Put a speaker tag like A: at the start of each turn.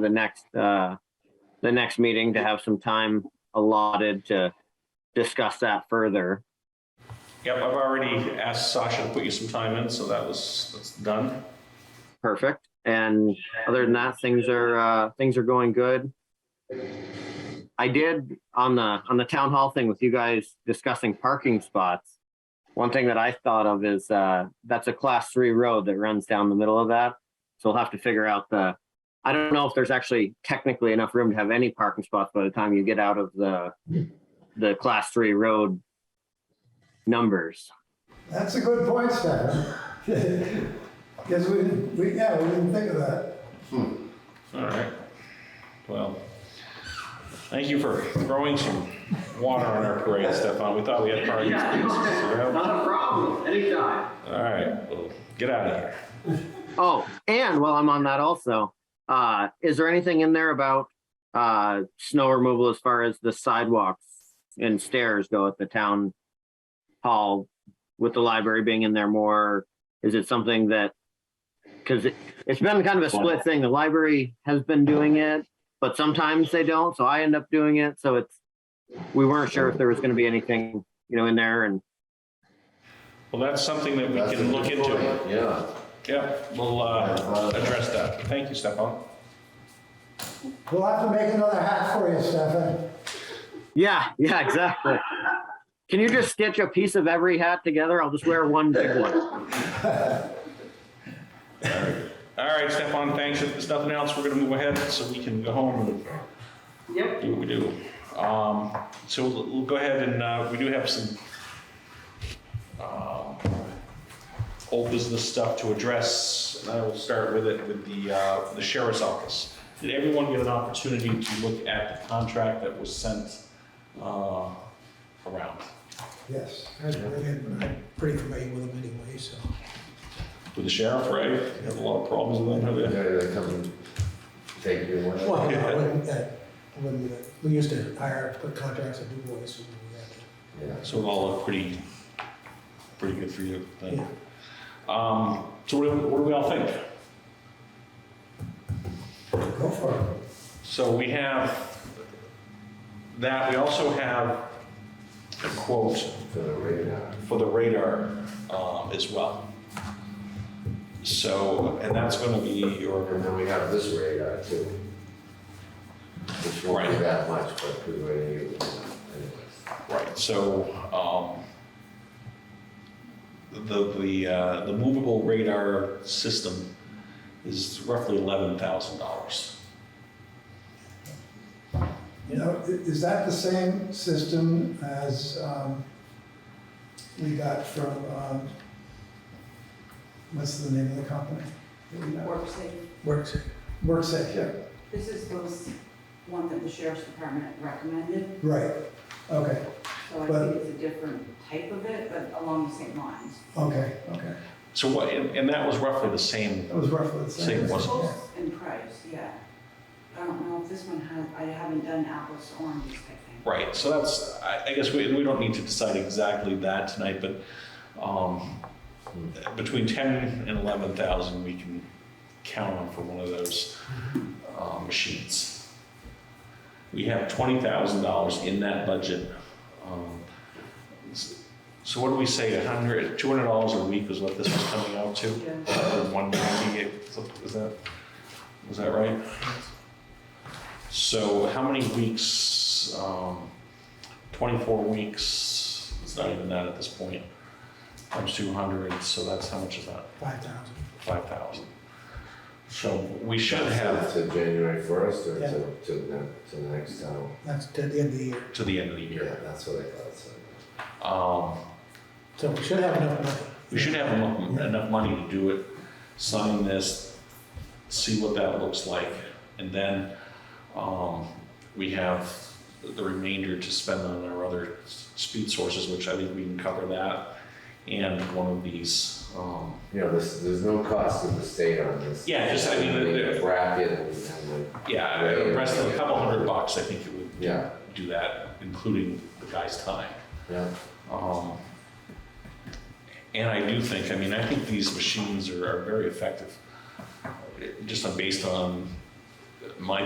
A: the next, uh, the next meeting to have some time allotted to discuss that further.
B: Yep, I've already asked Sasha to put you some time in, so that was, that's done.
A: Perfect. And other than that, things are, uh, things are going good. I did on the, on the town hall thing with you guys discussing parking spots. One thing that I thought of is, uh, that's a class three road that runs down the middle of that. So we'll have to figure out the, I don't know if there's actually technically enough room to have any parking spots by the time you get out of the, the class three road numbers.
C: That's a good point, Stefan. Because we, we, yeah, we didn't think of that.
B: All right. Well, thank you for throwing some water on our parade, Stefan. We thought we had parties.
A: Not a problem, anytime.
B: All right, well, get out of here.
A: Oh, and while I'm on that also, uh, is there anything in there about, uh, snow removal as far as the sidewalks and stairs go at the town hall with the library being in there more? Is it something that, cause it, it's been kind of a split thing. The library has been doing it, but sometimes they don't, so I end up doing it. So it's, we weren't sure if there was gonna be anything, you know, in there and
B: Well, that's something that we
D: That's
B: can
D: a
B: look
D: good
B: into.
D: point, Yeah.
B: Yep, we'll uh, address that. Thank you, Stefan.
C: We'll have to make another hat for you, Stefan.
A: Yeah, yeah, exactly. Can you just stitch a piece of every hat together? I'll just wear one big one.
B: All right, Stefan, thanks. If there's nothing else, we're gonna move ahead so we can go home and do what we do. Um, so we'll, we'll go ahead and, uh, we do have some, um, old business stuff to address, and I will start with it with the, uh, the sheriff's office. Did everyone get an opportunity to look at the contract that was sent, uh, around?
C: Yes.
E: I was wondering, but I'm pretty familiar with them anyway, so.
B: With the sheriff, right? You Have a lot of problems with that, have you?
D: They're gonna come and take you away.
E: Well, I wouldn't, uh, when, uh, we used to hire contractors to do voice, and we had to
D: Yeah.
B: So it all looked pretty, pretty good for you then.
E: Yeah.
B: Um, so what do, what do we all think?
C: Go for it.
B: So we have that, we also have a quote
D: For the radar.
B: for the radar, um, as well. So, and that's gonna be your,
D: And then we have this radar too. Which won't be
B: Right.
D: that much, but we were gonna use it anyways.
B: right, so, um, the, the, uh, the movable radar system is roughly eleven thousand dollars.
C: You know, i- is that the same system as, um, we got from, um, what's the name of the company?
F: Work safe.
E: works.
C: WorkSafe, yeah.
F: This is those, one that the sheriff's department recommended,
C: Right, okay,
F: so I
C: But-
F: think it's a different type of it, but along the same lines.
C: okay, okay.
B: So what, and, and that was roughly the same,
C: That was roughly the same.
B: Same, wasn't
C: Yeah.
F: Close in price, yeah. I don't know if this one has, I haven't done apples to oranges, I think.
B: right, so that's, I, I guess we, we don't need to decide exactly that tonight, but, um, between ten and eleven thousand, we can count on for one of those, um, machines. We have twenty thousand dollars in that budget. Um, s- So what do we say, a hundred, two hundred dollars a week is what this was coming out to?
F: Yeah.
B: One ninety-eight, is that, is that right? So how many weeks, um, twenty-four weeks, it's not even that at this point, times two hundred, so that's, how much is that?
E: five thousand.
B: Five thousand. So we should have
D: To January first or
E: Yeah.
D: to, to the, to the next town.
E: That's to the end of the year.
B: to the end of the
D: Yeah,
B: year.
D: that's what I thought, so.
B: Um,
E: So we should have enough money.
B: we should have enough, enough money to do it, sign this, see what that looks like. And then, um, we have the remainder to spend on our other s- speed sources, which I think we can cover that. And one of these, um,
D: You know, there's, there's no cost to the state on this.
B: Yeah, just, I mean, the- the-
D: Bracket and, and like,
B: yeah, the rest of a couple hundred bucks, I think it would
D: Yeah.
B: do that, including the guy's time.
D: yeah.
B: Um, And I do think, I mean, I think these machines are, are very effective, It- just on- based on my